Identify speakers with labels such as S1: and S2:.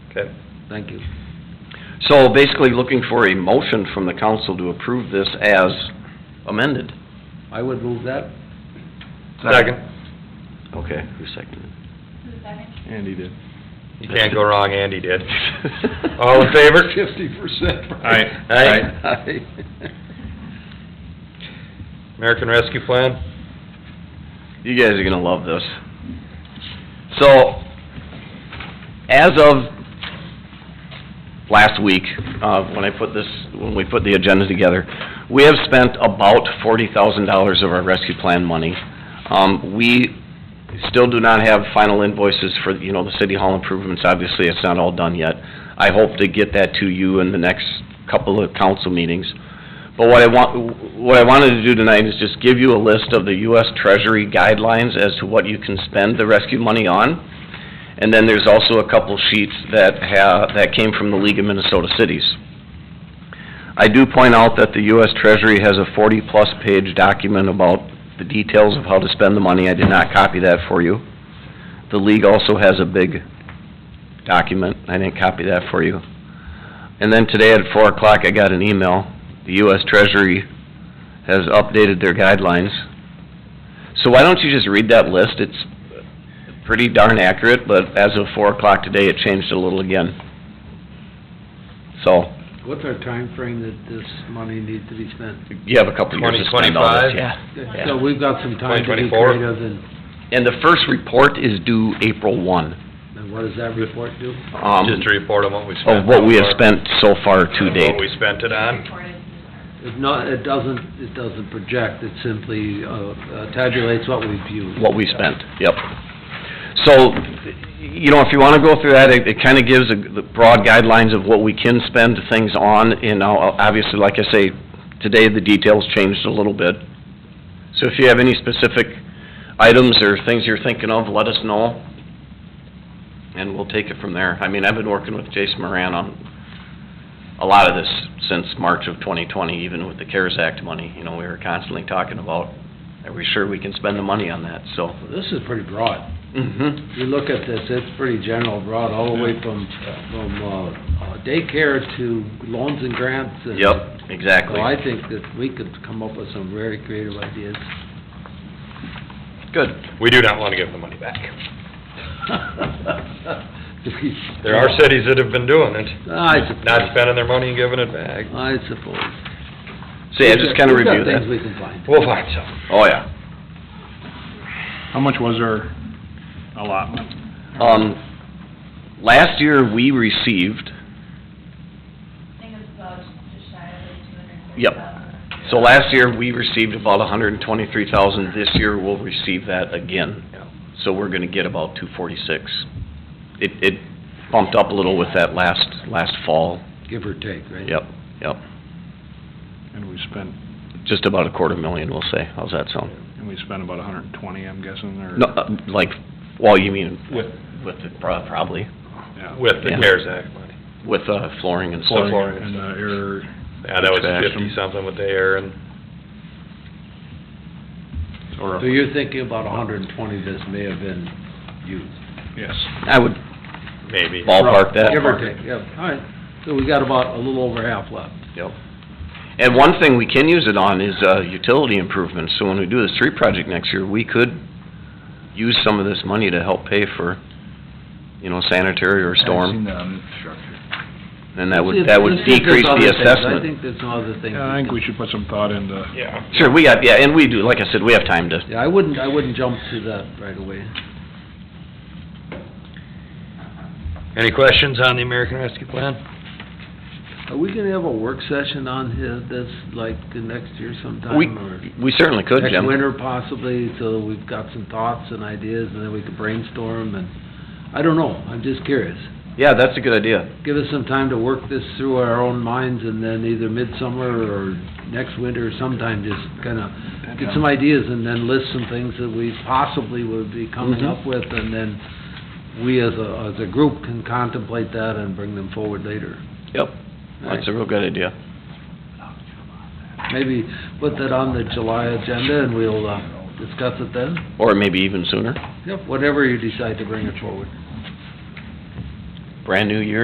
S1: Okay.
S2: Thank you.
S3: So basically looking for a motion from the council to approve this as amended.
S2: I would move that.
S1: Second.
S3: Okay, who seconded?
S4: Who's second?
S5: Andy did.
S1: You can't go wrong, Andy did. All
S3: All
S1: in favor?
S5: Fifty percent.
S1: Aye.
S3: Aye.
S1: American Rescue Plan?
S3: You guys are gonna love this. So, as of last week, uh, when I put this, when we put the agenda together, we have spent about forty thousand dollars of our rescue plan money. Um, we still do not have final invoices for, you know, the city hall improvements, obviously, it's not all done yet. I hope to get that to you in the next couple of council meetings. But what I want, what I wanted to do tonight is just give you a list of the US Treasury guidelines as to what you can spend the rescue money on. And then there's also a couple sheets that ha that came from the League of Minnesota Cities. I do point out that the US Treasury has a forty-plus page document about the details of how to spend the money. I did not copy that for you. The league also has a big document. I didn't copy that for you. And then today at four o'clock, I got an email. The US Treasury has updated their guidelines. So why don't you just read that list? It's pretty darn accurate, but as of four o'clock today, it changed a little again. So,
S2: What's our time frame that this money needs to be spent?
S3: you have a couple years to spend all this,
S1: 2025?
S3: yeah.
S2: So we've got some time to
S1: 2024.
S2: be creative, and,
S3: And the first report is due April one,
S2: and what does that report do?
S3: um,
S1: Just a report on what we spent.
S3: of what we have
S1: so far.
S3: spent so far to
S1: And
S3: date.
S1: What we spent it on.
S4: Recorded.
S2: It's not, it doesn't, it doesn't project, it simply uh, tabulates what we've used.
S3: what we spent, yep. So, you know, if you wanna go through that, it, it kinda gives a- the broad guidelines of what we can spend things on, and now, obviously, like I say, today the details changed a little bit. So if you have any specific items or things you're thinking of, let us know, and we'll take it from there. I mean, I've been working with Jason Moran on a lot of this since March of twenty twenty, even with the CARES Act money, you know, we were constantly talking about, are we sure we can spend the money on that, so.
S2: This is pretty broad.
S3: Mm-hmm.
S2: You look at this, it's pretty general, broad, all the way from, from uh, uh, daycare to loans and grants and...
S3: Yep, exactly.
S2: So I think that we could come up with some very creative ideas.
S3: Good.
S1: We do not wanna give them the money back. There
S2: There
S1: are cities that have been doing it,
S2: I suppose.
S1: not spending their money and giving it back.
S2: I suppose.
S3: So yeah, just kinda
S2: We've got
S3: review
S2: Things
S3: that.
S2: we can find.
S1: We'll find some.
S3: Oh, yeah.
S5: How much was our allotment?
S3: Um, last year, we received,
S4: I think it's about just shy of two hundred and thirty
S3: Yep.
S4: thousand.
S3: so last year, we received about hundred and twenty-three thousand. This year, we'll receive that again. So we're gonna get about two forty-six. It, it bumped up a little with that last, last fall.
S2: Give or take, right?
S3: Yep, yep.
S5: And we spent,
S3: Just about a quarter million, we'll say. How's that sound?
S5: and we spent about a hundred and twenty, I'm guessing, or?
S3: No, uh, like, well, you mean
S1: With,
S3: with, the- prob- probably,
S5: Yeah.
S1: with the
S3: Yeah.
S1: CARES Act money.
S3: with, uh, flooring and stuff.
S1: Flooring. Florida.
S5: And the air,
S1: Yeah, that was
S3: Extraction.
S1: fifty-something with the air and
S5: or,
S2: So you're thinking about hundred and twenty this may have been used.
S5: yes.
S3: I would
S1: maybe.
S3: ballpark that.
S2: Give or take, yeah, all right. So we got about a little over half left.
S3: Yep. And one thing we can use it on is, uh, utility improvements, so when we do the street project next year, we could use some of this money to help pay for, you know, sanitary or storm, and that would, that would
S2: Let's get-
S3: decrease
S2: let's get this other
S3: the
S2: things. I
S3: assessment.
S2: think there's some other things.
S5: Yeah, I think we should put some thought into,
S1: Yeah.
S3: Sure, we got, yeah, and we do, like I said, we have time to,
S2: Yeah, I wouldn't, I wouldn't jump to that right away.
S1: Any questions on the American Rescue Plan?
S2: Are we gonna have a work session on his, this, like, the next year sometime?
S3: we,
S2: or
S3: we certainly could,
S2: Next
S3: Jim.
S2: winter possibly, so we've got some thoughts and ideas, and then we could brainstorm, and, I don't know, I'm just curious.
S3: Yeah, that's a good idea.
S2: Give us some time to work this through our own minds, and then either midsummer or next winter sometime, just kinda get some ideas, and then list some things that we possibly would be coming
S3: Mhm.
S2: up with, and then we as a, as a group can contemplate that and bring them forward later.
S3: Yep, that's a real good idea.
S2: Maybe put that on the July agenda, and we'll, uh, discuss it then.
S3: Or maybe even sooner,
S2: Yep, whatever you decide to bring it forward.
S3: brand new year,